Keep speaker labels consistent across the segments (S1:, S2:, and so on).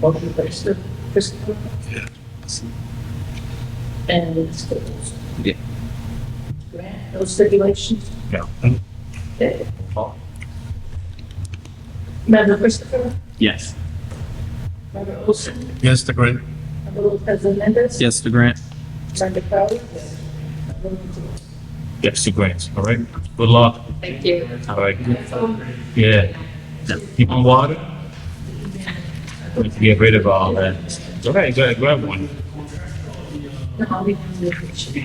S1: Motion by Mr. Christopher.
S2: Yeah.
S1: And Ms. Nichols.
S2: Yeah.
S1: Grant, no stipulations?
S2: No.
S1: Okay. Member Christopher,
S2: Yes.
S1: member Olson,
S2: Yes to grant.
S1: member Lopez Hernandez.
S2: Yes to grant.
S1: Member Crowley. Member Nichols.
S2: Yes to grant, all right? Good luck.
S1: Thank you.
S2: All right. Yeah. Keep on water. We can Get rid of all that. All right, go ahead, grab one.
S1: No, I'll be doing the picture.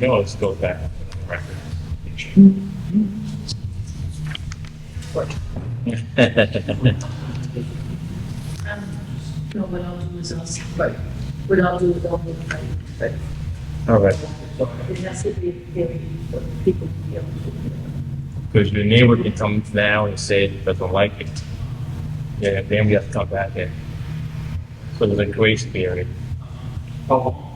S2: No, let's go back.
S1: Um, No, what I'll do is I'll, right, what I'll do is I'll, right, right.
S2: All right,
S1: It has to be very, for people to be able to.
S2: because your neighbor can come now and say it doesn't like it. Yeah, then we have to come back in. So there's a grace period.
S3: Oh,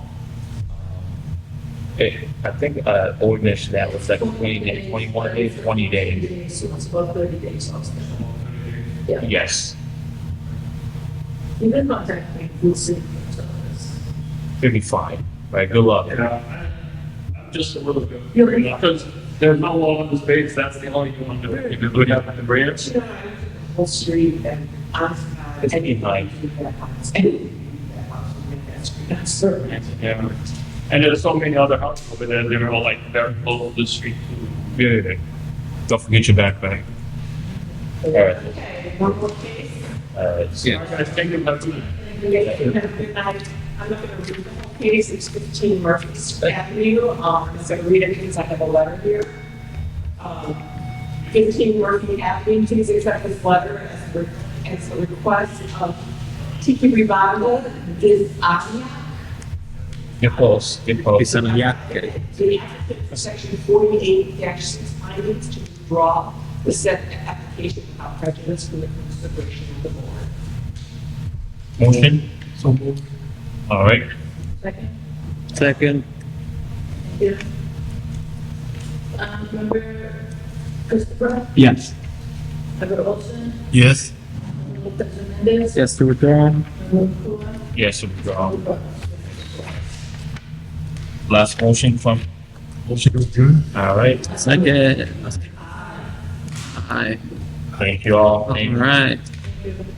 S2: Eh, I think, uh, ordinance that was like twenty days, twenty-one days, twenty days.
S1: So it's about thirty days also. Yeah,
S2: Yes,
S1: you can contact me, we'll see. what's up with this.
S2: it'll be fine. All right, good luck.
S3: yeah, I- I'm just a little bit.
S1: You're-
S3: worried Because there's no law on this page, that's the only one to, if you look at the branch.
S1: You know, I live on the Whole street and uh, I'm.
S2: It's behind.
S1: That's certain.
S3: Yeah. And there's so many other houses over there, they're all like very close to the street.
S2: Yeah, yeah, yeah. Don't forget your backpack. All right,
S1: Okay, one more case.
S2: all right.
S3: I gotta think about it.
S1: I'm not gonna read the whole case, it's fifteen Murphy's Avenue, um, so read it because I have a letter here. Um, Fifteen Murphy Avenue, please accept this letter as a, re- as a request of Tiki Revival, this Anya.
S2: Get close, get close.
S1: The applicant for section forty-eight six findings to withdraw the set application without prejudice from the consideration of the board.
S2: Motion? So All right,
S1: Second?
S4: Second,
S1: Yeah. Um, member Christopher,
S4: yes.
S1: member Olson,
S2: Yes.
S1: member Lopez Hernandez,
S4: Yes to withdraw.
S1: member Kula,
S2: Yes, withdraw.
S1: member Buck.
S2: Last motion from? Motion to adjourn. All right,
S4: Second. Aye.
S2: thank you all.
S4: All
S2: Thank you.
S4: right.
S1: Thank you.